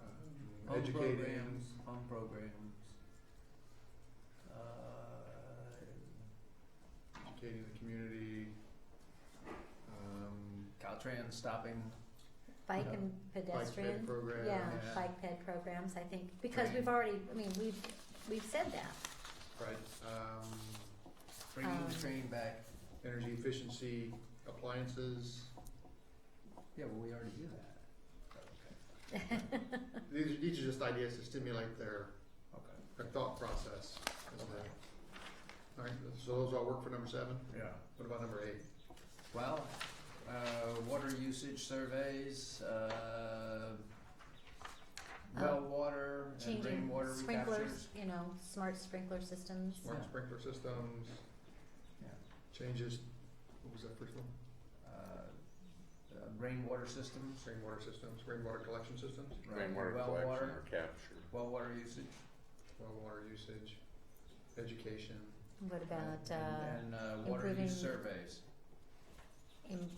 Uh-huh. educating. programs, Fun programs. Uh, educating the community. Um, Caltrans stopping. Bike Yeah. and bike pedestrian. ped program. Yeah, yeah. bike ped programs, I think, because Right. we've already, I mean, we've, we've said that. Right. Um, Bringing the Um, train back. energy efficiency appliances. Yeah, well, we already do that. Okay. These are, these are just ideas to stimulate their, Okay. their thought process. as to- All right. So those all work for number seven. Yeah. What about number eight? Well, uh, water usage surveys, uh, well water and Oh. Changing rainwater recaptures. sprinklers, you know, smart sprinkler systems. Smart Yeah. sprinkler systems. Yeah. Changes. What was that first one? Uh, uh, rainwater systems, Rainwater systems. Rainwater collection systems. right, Rainwater well collection water, or capture. well water usage, Well, water usage. Education. What about, uh, and, and uh, water improving- use surveys. im-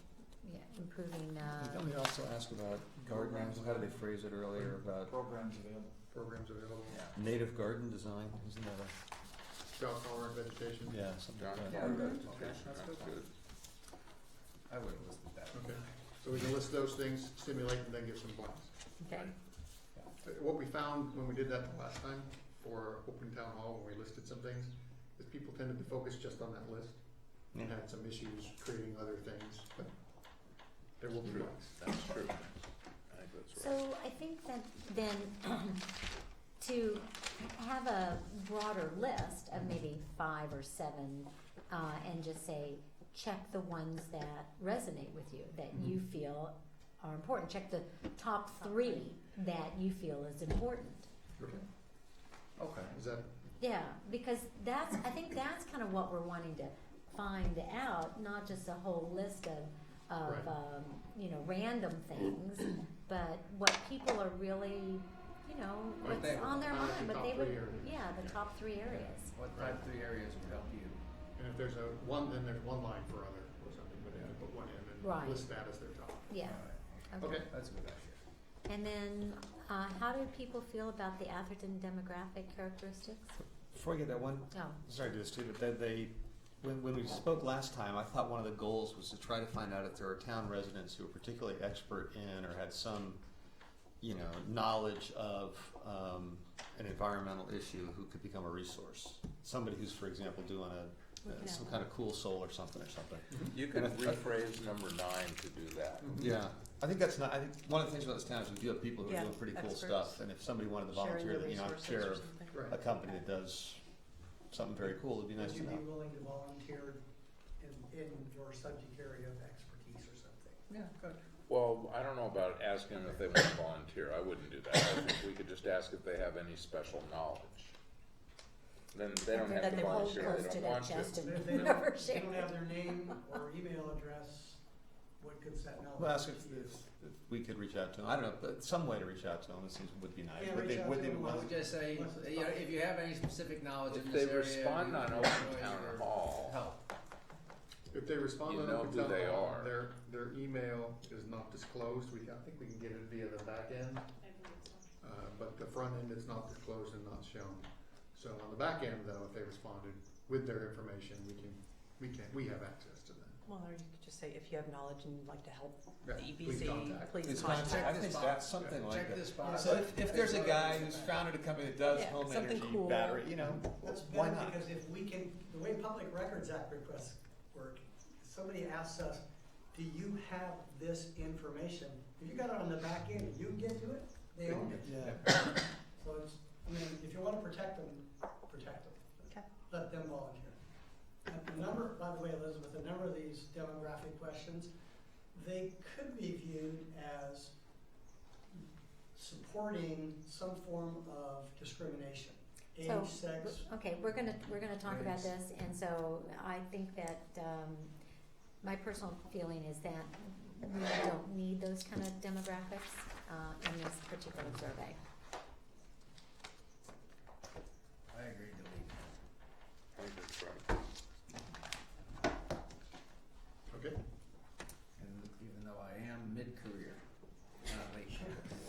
yeah, improving, uh, Don't we also ask about gardens, how did they phrase it earlier, about programs available. Programs available. Yeah. native garden design, isn't that a, Drought tolerant vegetation. yeah, something John like that? Carter Mhm. education, Okay, that's that's good. good. I would have listed that. Okay, so we can list those things, stimulate, and then give some blanks. okay, Uh, What we found when we did that the last time for open town hall, when we listed some things, is people tended to focus just on that list and had some issues creating other things, but there will be True. blanks. That's true. I think that's right. so I think that then to have a broader list of maybe five or seven, uh, and just say, check the ones that resonate with you, that Mm-hmm. you feel are important, check the top three that you feel is important. Okay. Okay. Is that, Yeah, because that's, I think that's kind of what we're wanting to find out, not just a whole list of, Right. of, um, you know, random things, but what people are really, you know, What what's they- on their uh, mind, the but top they three would, areas. yeah, the top three areas. What type three areas would help you? and if there's a one, then there's one line for other or something, but then put one in Right. and list that as their top. Yeah, okay. Okay, That's a good idea. And then, uh, how do people feel about the Atherton demographic characteristics? Before I get that one, Oh, sorry to do this too, but then they, when, when we spoke last time, I thought one of the goals was to try to find out if there are town residents who are particularly expert in or had some, you know, knowledge of, um, an environmental issue who could become a resource. Somebody who's, for example, doing a, Looking uh, at some one. kind of cool soul or something or something. You can rephrase number nine to do that. Mm-hmm. Yeah, I think that's not. I think one of the things about this town is we do have people who Yeah, are doing pretty cool experts. stuff, and if somebody wanted to volunteer, that, you know, I'm sure of right. a company that does something very cool, it'd be nice Would to you know. be willing to volunteer in, in your subject area of expertise or something? Yeah, good. Well, I don't know about asking them if they want to volunteer. I wouldn't do that. I think we could just ask if they have any special knowledge. Then they don't something have that to they hold volunteer. close to They don't their want to. chest If and they never don't, share. they don't have their name or email address, what good set knowledge? Well, ask if, is? if, if we could reach out to them. I don't know, but some way to reach out to them. It seems would be nice. Yeah, would reach they, out would to they them. I want- would just say, you know, if you have any specific knowledge in If this they area. respond you on can Open always Town or Hall. Help. If they respond You on know open who town they hall, are. their, their email is not disclosed, we, I think we can get it via the back end. Uh, but the front end is not disclosed and not shown. So on the back end though, if they responded with their information, we can, we can, we have access to that. Well, or you could just say, if you have knowledge and you'd like to help the Yeah, please EPC, contact. please It's contact. contact. I this think box. that's something like Check that. this box. So if, if there's a guy who's found. founded a company that does Yeah, home something energy cool. battery, you know, That's why better not? because if we can, the way Public Records Act requests work, if somebody asks us, do you have this information? If you got it on the back end, you can get to it, they own it. Yeah. So it's, I mean, if you wanna protect them, protect them. Okay. Let them volunteer. And a number, by the way, Elizabeth, a number of these demographic questions, they could be viewed as supporting some form of discrimination. Age, So, sex, Okay, we're gonna, we're gonna talk about Raise. this, and so I think that, um, my personal feeling is that we don't need those kind of demographics, uh, in this particular survey.